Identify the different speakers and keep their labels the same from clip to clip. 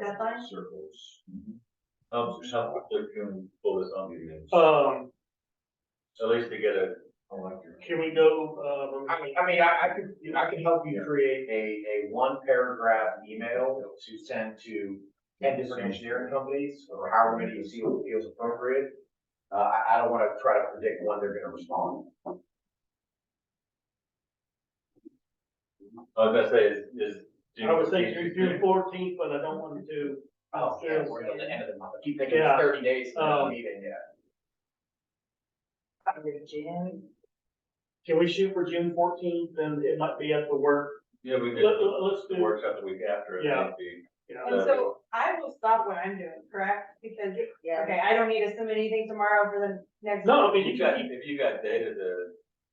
Speaker 1: deadline?
Speaker 2: Circles. How, how quick can we pull this on you guys?
Speaker 3: Um,
Speaker 2: At least to get a. I like your-
Speaker 3: can we go, um,
Speaker 4: I mean, I mean, I, I could, I could help you create a, a one paragraph email to send to ten different engineering companies, or however many you see feels appropriate. Uh, I, I don't wanna try to predict when they're gonna respond.
Speaker 2: I was gonna say is, is.
Speaker 3: I would say June- June fourteenth, but I don't want to.
Speaker 4: Oh, yeah, we're at the end of the month, I keep thinking it's
Speaker 3: Yeah.
Speaker 4: thirty days to the
Speaker 3: Um,
Speaker 4: meeting, yeah.
Speaker 1: June.
Speaker 3: Can we shoot for June fourteenth, then it might be at the work,
Speaker 2: Yeah, we
Speaker 3: let,
Speaker 2: could,
Speaker 3: let- let's
Speaker 2: the
Speaker 3: do,
Speaker 2: workshop the week after. it
Speaker 3: Yeah.
Speaker 2: might be-
Speaker 3: you
Speaker 1: And
Speaker 3: know,
Speaker 1: so I will stop what I'm doing, correct? Because, okay, I don't need to submit anything tomorrow for the next.
Speaker 3: no, I mean,
Speaker 2: uh, If
Speaker 3: you
Speaker 2: you got,
Speaker 3: can,
Speaker 2: if you got data to,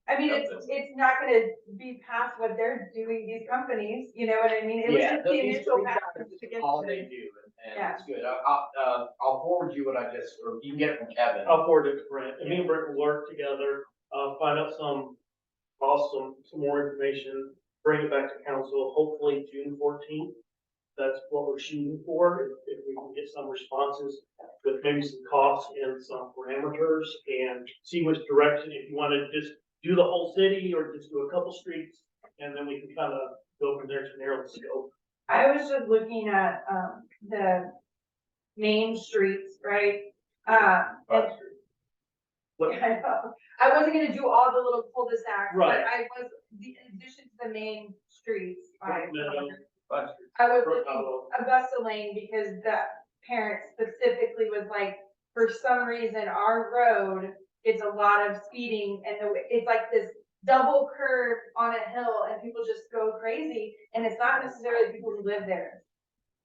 Speaker 1: I mean, it's,
Speaker 2: Something.
Speaker 1: it's not gonna be past what they're doing, these companies, you know what I mean? It was
Speaker 4: Yeah,
Speaker 1: just the
Speaker 4: these
Speaker 1: initial
Speaker 4: three
Speaker 1: pass
Speaker 4: documents
Speaker 1: to
Speaker 4: is
Speaker 1: get
Speaker 4: All
Speaker 1: to
Speaker 4: they
Speaker 1: it.
Speaker 4: do, and, and
Speaker 1: Yeah.
Speaker 4: it's good, I, I'll, uh, I'll forward you what I just, or you can get it from Kevin.
Speaker 3: I'll forward it to Brent, and me and Brent will work together, uh, find out some, awesome, some more information, bring it back to council, hopefully June fourteenth. That's what we're shooting for, if, if we can get some responses with maybe some costs and some parameters and see which direction, if you wanna just do the whole city or just do a couple streets, and then we can kinda go from there to narrow the scope.
Speaker 1: I was just looking at, um, the main streets, right? Uh, and
Speaker 2: but
Speaker 3: But
Speaker 1: I know. I wasn't gonna do all the little cul-de-sacs, but
Speaker 3: Right.
Speaker 1: I was, the in addition to the main streets, I,
Speaker 3: Brook Meadow.
Speaker 2: but
Speaker 1: I was
Speaker 3: Brook
Speaker 1: looking
Speaker 3: Hollow,
Speaker 1: Augusta Lane because the parent specifically was like, for some reason, our road, it's a lot of speeding and the, it's like this double curve on a hill and people just go crazy and it's not necessarily people who live there.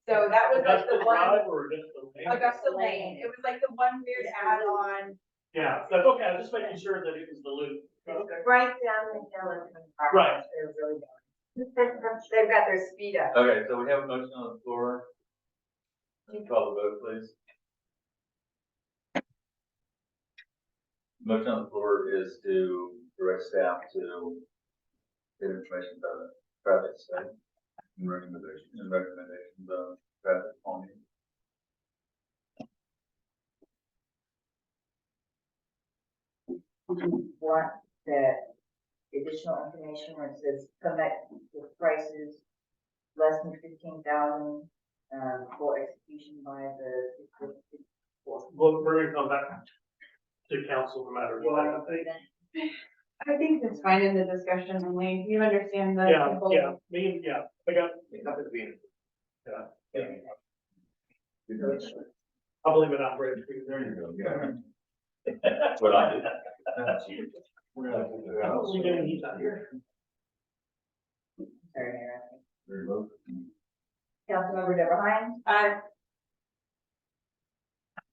Speaker 1: So that was like
Speaker 3: Augusta
Speaker 1: the one,
Speaker 3: Drive or Augusta Lane?
Speaker 1: Augusta Lane, it was like the one weird add-on
Speaker 3: Yeah, so, okay, I'm just making sure that it was the loop. Okay.
Speaker 5: right down the hill in front of our
Speaker 3: Right.
Speaker 5: house, They're really going. They've got their speed up.
Speaker 2: Okay, so we have a motion on the floor. Can you Call the vote, please. Motion on the floor is to direct staff to get information about the traffic study and recommendation, and recommendations of traffic calming.
Speaker 5: Want the additional information where it says come back with prices less than fifteen thousand, um, for execution by the.
Speaker 3: Well, we're gonna come back to council no matter what. I think.
Speaker 1: I think that's fine in the discussion only, you understand the.
Speaker 3: Yeah,
Speaker 1: whole-
Speaker 3: yeah, me, and- yeah, I got,
Speaker 4: It's nothing to be.
Speaker 3: yeah, I believe it operates. pretty
Speaker 2: There you
Speaker 3: good.
Speaker 2: go. yeah. That's what I did. We're gonna put it
Speaker 3: I
Speaker 2: out,
Speaker 3: don't
Speaker 2: so-
Speaker 3: believe any he's out here.
Speaker 5: Sorry, Mayor.
Speaker 2: Very low.
Speaker 5: Councilmember Deborah Hines,
Speaker 1: Uh,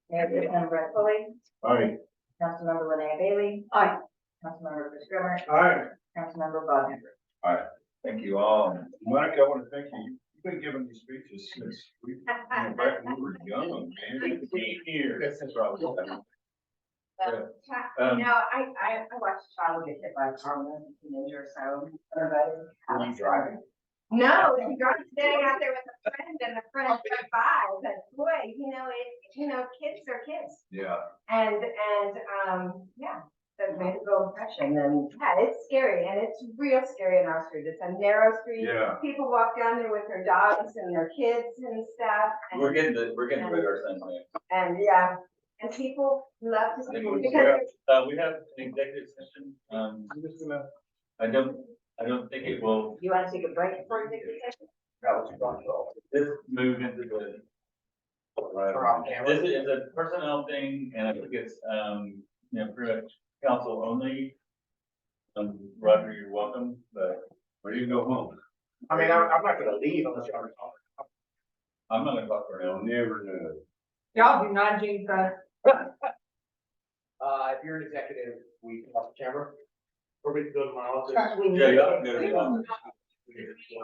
Speaker 5: Mayor Pro Tem Brett Foley,
Speaker 2: All right.
Speaker 5: Councilmember Linnea Bailey.
Speaker 1: Aye.
Speaker 5: Councilmember Chris Grummer,
Speaker 2: All right.
Speaker 5: Councilmember Bob Andrews.
Speaker 2: Thank you all. Monica, I want to thank you. You've been giving these speeches since we, back when we were young, man. Eight years. That's probably- Um,
Speaker 5: You know, I, I, I watched a child get hit by a car when I was a teenager, so. everybody-
Speaker 4: Driving.
Speaker 5: No, you got standing out there with a friend and a friend drove by, but boy, you know, it, you know, kids are kids.
Speaker 2: Yeah,
Speaker 5: And, and, um, yeah, that made a real impression and, yeah, it's scary and it's real scary in our street. It's a narrow street.
Speaker 2: yeah.
Speaker 5: People walk down there with their dogs and their kids and stuff. and-
Speaker 2: We're getting, the- we're getting rid of our things, man.
Speaker 5: And, yeah, and people love
Speaker 2: I
Speaker 5: to see
Speaker 2: think we-
Speaker 5: them
Speaker 2: we
Speaker 5: because
Speaker 2: have- Uh, we have an executive session. Um, I'm just gonna, I don't, I don't think it will,
Speaker 5: you want to take a break before you take the session?
Speaker 4: That was fun, though.
Speaker 2: this move into the.
Speaker 4: We're off camera.
Speaker 2: This is a personnel thing and I think it's, um, you know, pretty much council only. Um, Roger, you're welcome, but. Where do you go home?
Speaker 4: I mean, I'm, I'm not gonna leave unless y'all are talking.
Speaker 2: I'm not gonna talk for now. Never know.
Speaker 1: y'all do not jinx us.
Speaker 4: Uh, if you're an executive, we can off the camera.
Speaker 3: Or we can go to my office.
Speaker 2: Yeah, you ought to go to the office.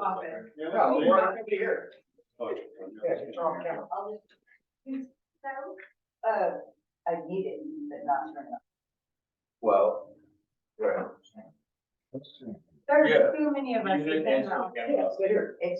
Speaker 1: Office.
Speaker 4: No, we're not gonna be here. Yeah,
Speaker 2: Okay.
Speaker 5: uh,
Speaker 4: it's off camera.
Speaker 5: So, uh, I need it, but not turn it off.
Speaker 4: Well, right.
Speaker 1: There's
Speaker 2: Yeah.
Speaker 1: too many of us.
Speaker 2: You didn't
Speaker 1: who've been
Speaker 2: answer
Speaker 1: around.
Speaker 2: the camera.
Speaker 4: Yeah, stay here.
Speaker 5: It's